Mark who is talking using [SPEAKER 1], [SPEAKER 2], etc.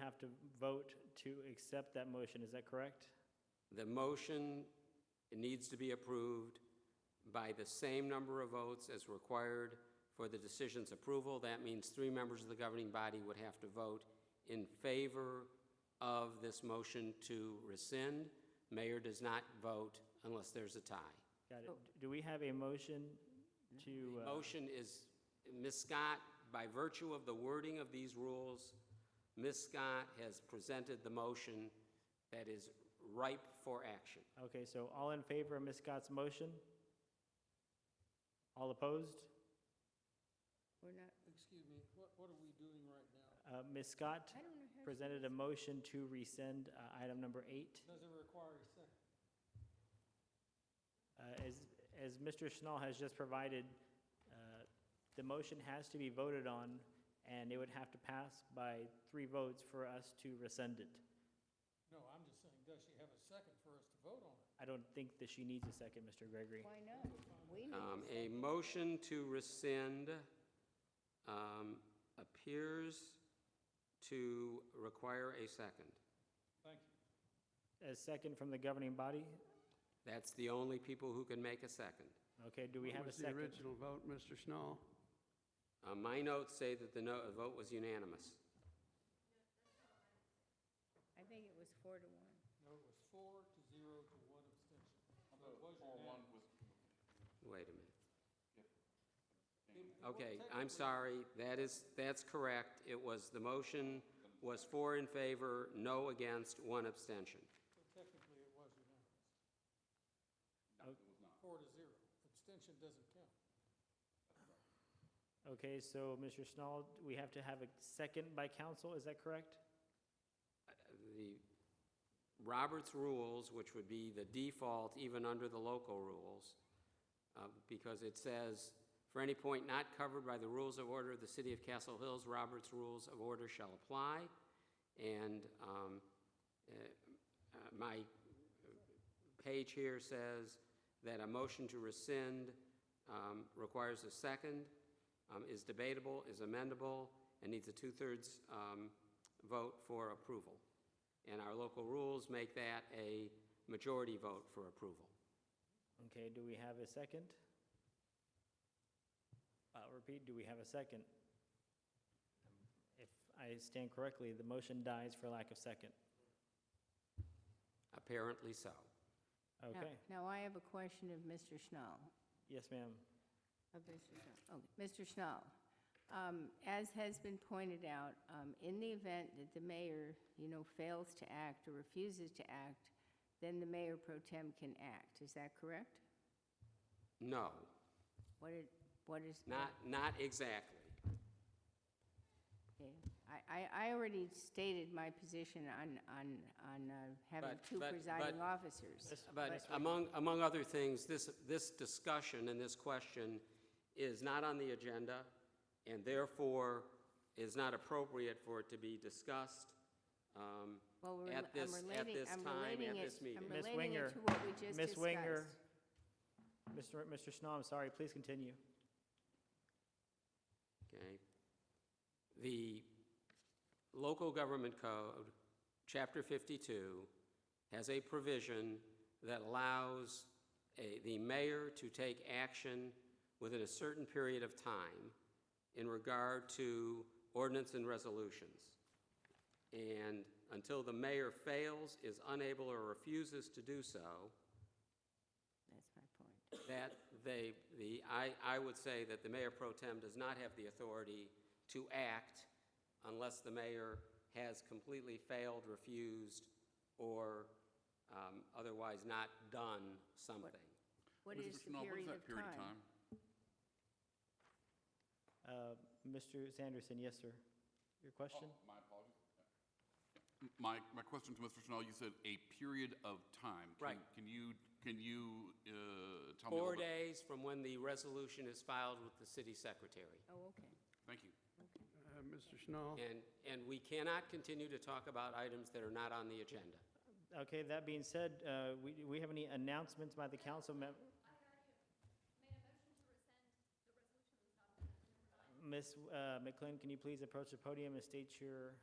[SPEAKER 1] have to vote to accept that motion, is that correct?
[SPEAKER 2] The motion needs to be approved by the same number of votes as required for the decision's approval. That means three members of the governing body would have to vote in favor of this motion to rescind. Mayor does not vote unless there's a tie.
[SPEAKER 1] Got it. Do we have a motion to? uh,
[SPEAKER 2] Motion is, Ms. Scott, by virtue of the wording of these rules, Ms. Scott has presented the motion that is ripe for action.
[SPEAKER 1] Okay, so all in favor of Ms. Scott's motion? All opposed?
[SPEAKER 3] We're not,
[SPEAKER 4] Excuse me, what, what are we doing right now?
[SPEAKER 1] Uh, Ms. Scott
[SPEAKER 3] I don't know how.
[SPEAKER 1] presented a motion to rescind uh, item number eight.
[SPEAKER 4] Does it require a second?
[SPEAKER 1] Uh, As, as Mr. Schnall has just provided, uh, the motion has to be voted on, and it would have to pass by three votes for us to rescind it.
[SPEAKER 4] No, I'm just saying, does she have a second for us to vote on it?
[SPEAKER 1] I don't think that she needs a second, Mr. Gregory.
[SPEAKER 3] Why not? We need
[SPEAKER 2] Um,
[SPEAKER 3] to
[SPEAKER 2] A
[SPEAKER 3] say,
[SPEAKER 2] motion to rescind um, appears to require a second.
[SPEAKER 4] Thank you.
[SPEAKER 1] A second from the governing body?
[SPEAKER 2] That's the only people who can make a second.
[SPEAKER 1] Okay, do we have a
[SPEAKER 5] What
[SPEAKER 1] second?
[SPEAKER 5] was the original vote, Mr. Schnall?
[SPEAKER 2] Uh, My notes say that the no- vote was unanimous.
[SPEAKER 3] I think it was four to one.
[SPEAKER 4] No, it was four to zero to one abstention. So it was unanimous.
[SPEAKER 2] Wait a minute.
[SPEAKER 4] It- it wa-
[SPEAKER 2] Okay, I'm
[SPEAKER 4] technically,
[SPEAKER 2] sorry, that is, that's correct. It was, the motion was four in favor, no against, one abstention.
[SPEAKER 4] Technically, it was unanimous. Four to zero. Abstention doesn't count.
[SPEAKER 1] Okay, so Mr. Schnall, we have to have a second by council, is that correct?
[SPEAKER 2] the Roberts rules, which would be the default even under the local rules, uh, because it says, "For any point not covered by the rules of order of the City of Castle Hills, Roberts Rules of Order shall apply." And um, uh, uh, my page here says that a motion to rescind um, requires a second, um, is debatable, is amendable, and needs a two-thirds um, vote for approval. And our local rules make that a majority vote for approval.
[SPEAKER 1] Okay, do we have a second? Uh, repeat, do we have a second? If I stand correctly, the motion dies for lack of second.
[SPEAKER 2] Apparently so.
[SPEAKER 3] Now-
[SPEAKER 1] Okay,
[SPEAKER 3] Now, I have a question of Mr. Schnall.
[SPEAKER 1] yes, ma'am.
[SPEAKER 3] Of Mr. Schnall. Okay, Mr. Schnall, um, as has been pointed out, um, in the event that the mayor, you know, fails to act or refuses to act, then the mayor pro tem can act. Is that correct?
[SPEAKER 2] No,
[SPEAKER 3] What it, what is?
[SPEAKER 2] not, not exactly.
[SPEAKER 3] Okay. I, I, I already stated my position on, on, on uh, having
[SPEAKER 2] But-
[SPEAKER 3] two
[SPEAKER 2] but-
[SPEAKER 3] presiding
[SPEAKER 2] but-
[SPEAKER 3] officers.
[SPEAKER 2] But among, among other things, this, this discussion and this question is not on the agenda, and therefore is not appropriate for it to be discussed um,
[SPEAKER 3] Well, we're,
[SPEAKER 2] at
[SPEAKER 3] I'm
[SPEAKER 2] this, at
[SPEAKER 3] relating,
[SPEAKER 2] this
[SPEAKER 3] I'm
[SPEAKER 2] time,
[SPEAKER 3] relating
[SPEAKER 2] at
[SPEAKER 3] it,
[SPEAKER 2] this meeting.
[SPEAKER 3] I'm
[SPEAKER 1] Ms.
[SPEAKER 3] relating
[SPEAKER 1] Winger,
[SPEAKER 3] it to what we just discussed.
[SPEAKER 1] Ms. Winger, Mr. Mr. Schnall, I'm sorry, please continue.
[SPEAKER 2] Okay. The local government code, chapter 52, has a provision that allows a- the mayor to take action within a certain period of time in regard to ordinance and resolutions. And until the mayor fails, is unable, or refuses to do so,
[SPEAKER 3] That's my point.
[SPEAKER 2] that they, the, I, I would say that the mayor pro tem does not have the authority to act unless the mayor has completely failed, refused, or um, otherwise not done something.
[SPEAKER 3] What
[SPEAKER 6] Mr.
[SPEAKER 3] is the
[SPEAKER 6] Schnall, what is
[SPEAKER 3] period
[SPEAKER 6] that
[SPEAKER 3] of time?
[SPEAKER 1] Uh, Mr. Sanderson, yes, sir. Your question?
[SPEAKER 6] Oh, My apologies. M- My, my question to Mr. Schnall, you said a period of time. Can-
[SPEAKER 2] Right.
[SPEAKER 6] Can you, can you uh, tell me a
[SPEAKER 2] Four
[SPEAKER 6] little bit?
[SPEAKER 2] days from when the resolution is filed with the city secretary.
[SPEAKER 3] Oh, okay.
[SPEAKER 6] Thank you.
[SPEAKER 5] Uh, Mr.
[SPEAKER 6] Oh.
[SPEAKER 5] Schnall?
[SPEAKER 2] And, and we cannot continue to talk about items that are not on the agenda.
[SPEAKER 1] Okay, that being said, uh, we, do we have any announcements by the council mem- Ms. uh, McLean, can you please approach the podium and state your